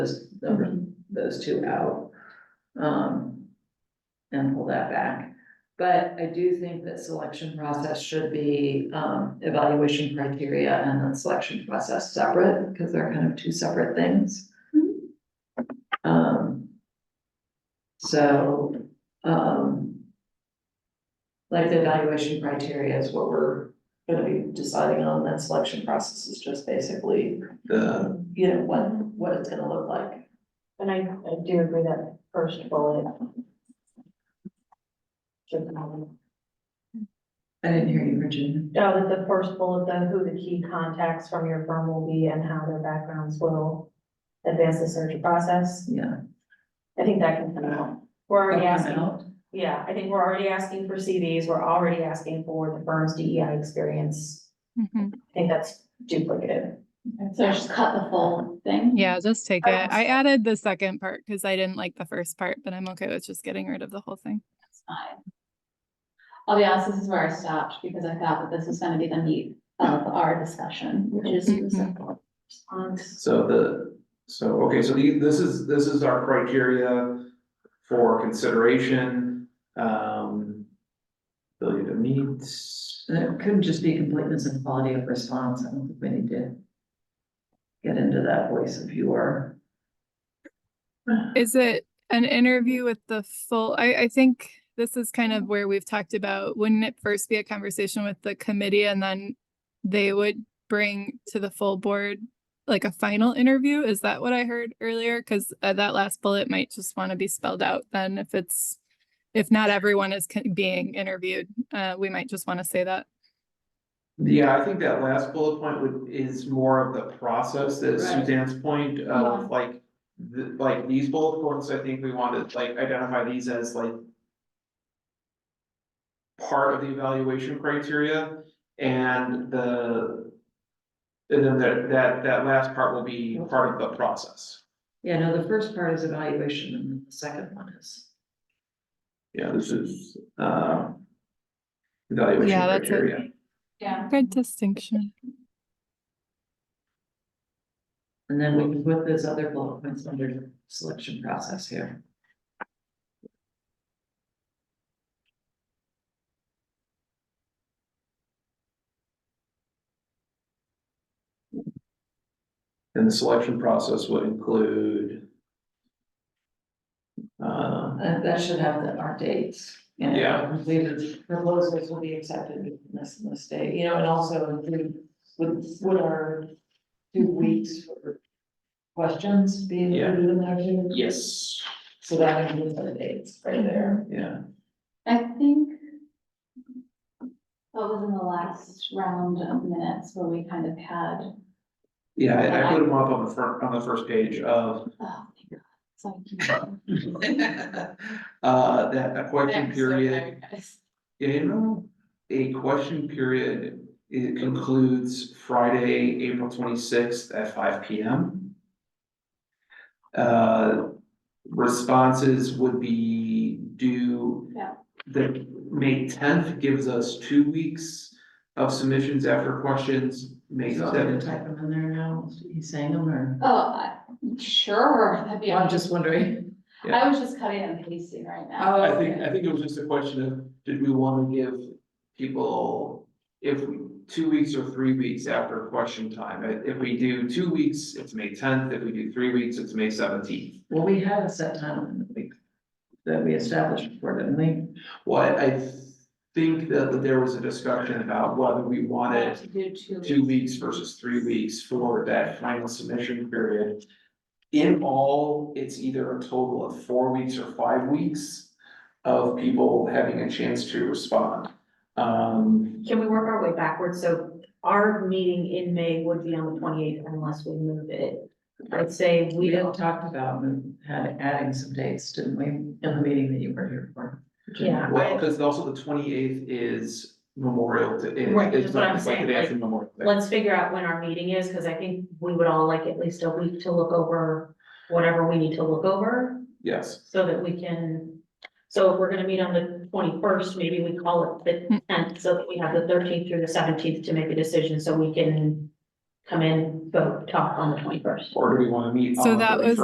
those, those two out. Um, and pull that back. But I do think that selection process should be, um, evaluation criteria and then selection process separate, because they're kind of two separate things. Um, so, um, like the evaluation criteria is what we're gonna be deciding on, that selection process is just basically, The, you know, what, what it's gonna look like. And I, I do agree that first bullet. Should be- Oh, I didn't hear you, Virginia. that the first bullet, the who the key contacts from your firm will be and how their backgrounds will advance the search process. Yeah. I think that can come out. We're already asking, Out. yeah, I think we're already asking for CVs, we're already asking for the firm's DEI experience. Mhm. I think that's duplicative. So just cut the full thing? Yeah, just take it. I I added the second part because I didn't like the first part, but I'm okay with just getting rid of the whole thing. That's fine. I'll be honest, this is where I stopped because I thought that this was gonna be the meat of our discussion, which is the Mhm. simple response. so the, so, okay, so the, this is, this is our criteria for consideration, um. Ability to meet, And it couldn't just be completeness and quality of response, I don't think we need to get into that voice of you are. Is it an interview with the full? I, I think this is kind of where we've talked about, wouldn't it first be a conversation with the committee and then they would bring to the full board like a final interview? Is that what I heard earlier? Because uh, that last bullet might just want to be spelled out then if it's, if not everyone is con- being interviewed, uh, we might just want to say that. yeah, I think that last bullet point would, is more of the process that Right. Suzanne's point Yeah. Uh-huh. of like. The, like these bullet points, I think we want to like identify these as like. Part of the evaluation criteria and the. And then that, that, that last part will be part of the process. Yeah, no, the first part is evaluation and then the second one is. Yeah, this is, uh. Evaluation Yeah, that's it. criteria. Yeah. Good distinction. And then we can put those other bullet points under selection process here. And the selection process would include. Uh, That, that should have the, our dates. you know, Yeah. Completed proposals will be accepted in this, in this day, you know, and also include, would, would our two weeks for questions be Yeah. included in there too? yes, So that includes our dates right there. yeah, I think that was in the last round of minutes where we kind of had, oh, yeah, I, I put them up on the front, on the first page of. oh my god, so. I can't- Uh, that a question I'm so period, tired, guys. you know, a question period, it concludes Friday, April twenty-sixth at five P M. Uh, responses would be due Yeah, The May tenth gives us two weeks of submissions after questions, May So I'm gonna seventh. type them in there now, he's saying them or? oh, I- sure, that'd be. I'm just wondering. I was just cutting and pasting right now. I think, I think it was just a question of, did we wanna give people, if we, two weeks or three weeks after question time? If- If we do two weeks, it's May tenth, if we do three weeks, it's May seventeenth. Well, we had a set time in the week that we established before, didn't we? Well, I- I think that that there was a discussion about whether we wanted To do two. Oh. two weeks versus three weeks for that final submission period. In all, it's either a total of four weeks or five weeks of people having a chance to respond. Um, Can we work our way backwards? So our meeting in May would be on the twenty-eighth unless we move it. I'd say We we had don't, talked about and had adding some dates, didn't we, in the meeting that you were here for? yeah. well, because also the twenty-eighth is Memorial, Day- it- Right, it's that's what not, I'm it's like the saying, day like, after Memorial Day. Let's figure out when our meeting is, because I think we would all like at least a week to look over whatever we need to look over Yes, so that we can. So if we're gonna meet on the twenty-first, maybe we call it the tenth, so that we have the thirteenth through the seventeenth to make a decision, so we can come in, vote, talk on the twenty-first. or do we wanna meet on So the that was-